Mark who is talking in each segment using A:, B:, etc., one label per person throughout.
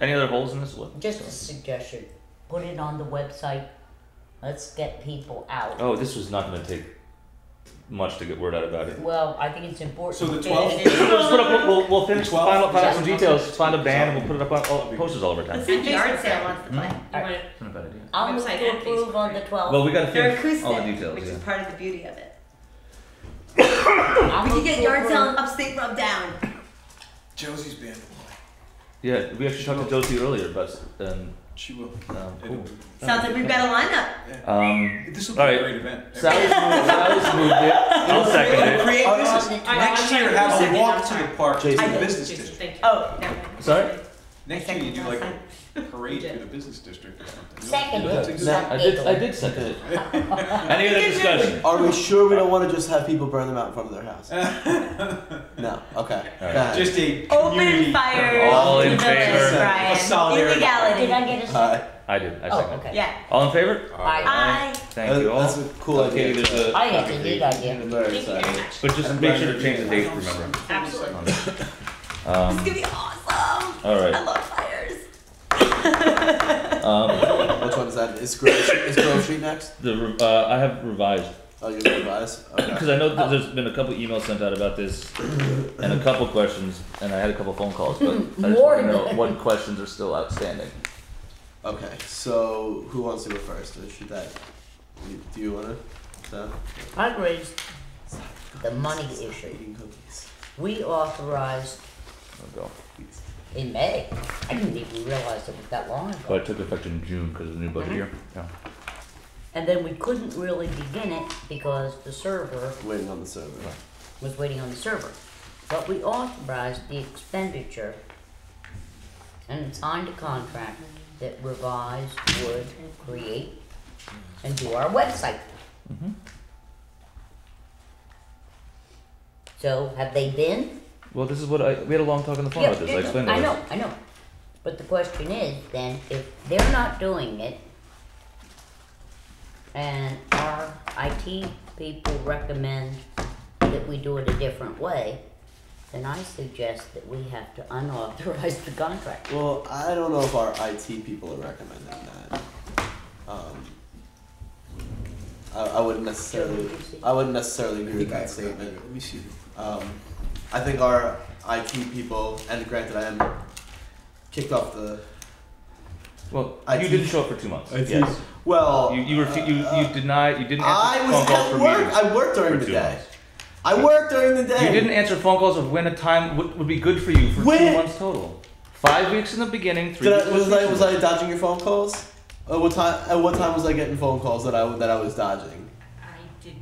A: Any other holes in this list?
B: Just a suggestion. Put it on the website. Let's get people out.
A: Oh, this was not going to take much to get word out about it.
B: Well, I think it's important.
C: So the
B: It-
C: 12th?
B: it is-
A: We'll, just put up, we'll, we'll finish
C: Twelve?
A: find out, find out some
C: Yeah.
A: details, find a band, and we'll put it up on all, posters all over
D: Let's
A: town.
D: see if yard sale wants to play. You
A: Mm-hmm.
B: Alright.
D: want it-
A: Not a bad idea.
B: I'll move
D: Website
B: to
D: and
B: approve
D: Facebook,
B: on the
D: right?
B: 12th.
A: Well, we got to
D: They're
A: finish
D: acoustic,
A: all the details.
D: which
A: Yeah.
D: is part of the beauty of it.
B: I'll
D: We
B: move
D: could
B: to
D: get yard
B: approve.
D: sale and upstate rub down.
C: Josie's band will play.
A: yeah, we actually talked to Josie earlier, but um,
C: She will.
A: um,
C: It'll
A: cool.
C: be-
D: Sounds like we've got a lineup.
A: Um,
C: This will be
A: All right.
C: a great event.
A: Sally's moved, Sally's moved it. I'll second it.
C: Create
B: Oh,
C: business.
B: no, I-
C: Next
D: I-
C: year,
D: I-
C: have
D: second,
C: a walk
D: I'm
C: to
D: sorry.
C: the park through
D: I
C: the
D: did.
C: business
D: Jason,
C: district.
D: thank you.
B: Oh.
D: Never mind.
A: Sorry?
C: Next year, you do like
D: Second.
C: a parade through the business district or something.
B: Second.
C: That's a good-
B: No.
A: I did, I did second it. Any other discussion?
E: Are we sure we don't want to just have people burn them out in front of their house? no. Okay. Go ahead.
C: Just a
D: Oh, Open
C: community-
D: fire.
A: All
D: to
A: in
D: the
A: favor.
D: village,
C: A
D: Brian.
C: solidarity.
B: Did I
D: Illegality.
B: get a
E: All
B: second?
E: right.
A: I did, I
B: Oh,
A: seconded it.
D: Yeah.
A: All in favor?
B: I,
D: Aye.
A: Thank you all.
E: That's a cool
A: Okay,
E: idea.
A: there's a-
B: I had a good idea.
E: Very
D: Thank you very
E: exciting.
D: much.
A: But just make sure to change the date, remember.
D: Absolutely. It's
A: Um,
D: gonna be awesome.
A: all
D: I
A: right.
D: love fires.
A: Um,
E: Which one's that? Is Grove, is Grove Street next?
A: the re- uh, I have revised
E: Oh, you're gonna revise?
A: because
E: Okay.
A: I know that there's been a couple emails sent out about this and a couple questions, and I had a couple phone calls, but I just
B: More
A: want to know
B: than-
A: what questions are still outstanding.
E: Okay. So who wants to go first? Or should that? you- Do you wanna? Sam?
B: I raised the money issue.
E: Eating cookies.
B: We authorized
A: I'll go.
B: in May. I didn't even realize it was that long ago.
A: But it took effect in June because of the new
B: Mm-hmm.
A: budget year. Yeah.
B: And then we couldn't really begin it because the server
E: Waiting on the server.
B: was waiting on the server. But we authorized the expenditure and signed a contract that Revise would create and do our website. So have they been?
A: Well, this is what I we had a long talk on the phone
B: Yeah,
A: about this. I explained
B: I
A: all
B: know, I know. But the question is then, if they're not doing it, and our IT people recommend that we do it a different way, then I suggest that we have to unauthorize the contract.
E: Well, I don't know if our IT people are recommending that. Um, I, I wouldn't necessarily. I wouldn't necessarily agree with that statement.
C: Let me see.
E: Um, I think our IT people, and granted, I am kicked off the.
A: Well,
E: I
A: you
E: think-
A: didn't show up for two months.
C: I think-
A: yes.
E: Well,
A: You you, refu- you
E: uh,
A: you denied you didn't answer
E: I was
A: phone calls
E: at
A: for
E: work.
A: meetings
E: I worked during
A: for
E: the
A: two
E: day.
A: months.
E: I worked during the day.
A: You didn't answer phone calls of when a time would, would be good for you for two
E: When?
A: months total. Five weeks in the beginning, three
E: Did
A: weeks
E: I, was
A: in the
E: I was
A: second.
E: I dodging your phone calls? At what time? At what time was I getting phone calls that I that I was dodging?
F: I did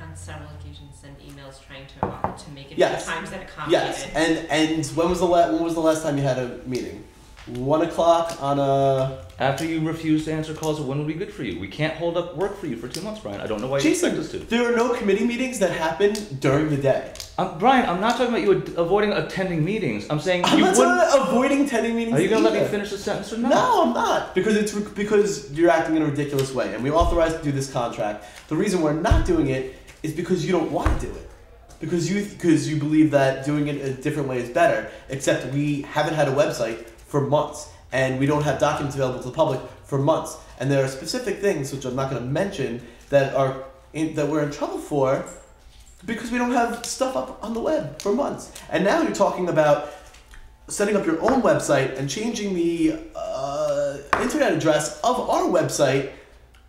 F: on several occasions send emails trying to uh, to make it
E: Yes.
F: times that accommodated.
E: Yes, and and when was the la- when was the last time you had a meeting? One o'clock on a.
A: After you refuse to answer calls of when would be good for you. We can't hold up work for you for two months, Brian. I don't know why you
E: Jason,
A: expect us to.
E: there are no committee meetings that happen during the day.
A: Um, Brian, I'm not talking about you ad- avoiding attending meetings. I'm saying
E: I'm
A: you
E: not
A: wouldn't.
E: talking about avoiding attending meetings.
A: Are you gonna let me
E: either.
A: finish the sentence or not?
E: No, I'm not because it's re- because you're acting in a ridiculous way, and we authorized to do this contract. The reason we're not doing it is because you don't want to do it, because you because you believe that doing it a different way is better. Except we haven't had a website for months, and we don't have documents available to the public for months. And there are specific things which I'm not going to mention that are in, that we're in trouble for because we don't have stuff up on the web for months. And now you're talking about setting up your own website and changing the uh, internet address of our website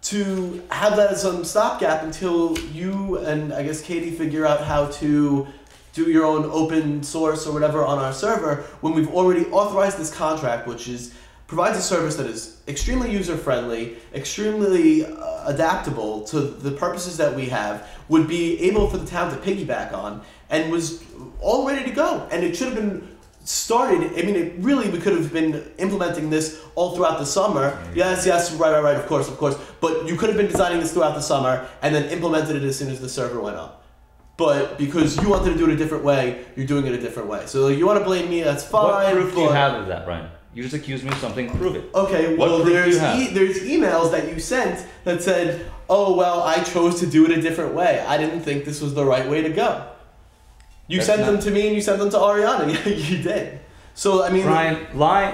E: to have that as some stopgap until you and I guess Katie figure out how to do your own open source or whatever on our server when we've already authorized this contract, which is provides a service that is extremely user friendly, extremely uh, adaptable to the purposes that we have, would be able for the town to piggyback on, and was all ready to go. And it should have been started. I mean, it really we could have been implementing this all throughout the summer. Yes, yes, right, right, right. Of course, of course. But you could have been designing this throughout the summer and then implemented it as soon as the server went up. But because you wanted to do it a different way, you're doing it a different way. So you want to blame me? That's fine.
A: What proof do you
E: but- Oh,
A: have of that, Brian? You just accused me of something. Prove it.
E: Okay,
A: What
E: well,
A: proof do you
E: there's
A: have?
E: e- there's emails that you sent that said, "Oh well, I chose to do it a different way. I didn't think this was the right way to go." You
A: That's
E: sent
A: not-
E: them to me, and you sent them to Ariana. Yeah, you did. So I mean,
A: Brian, lie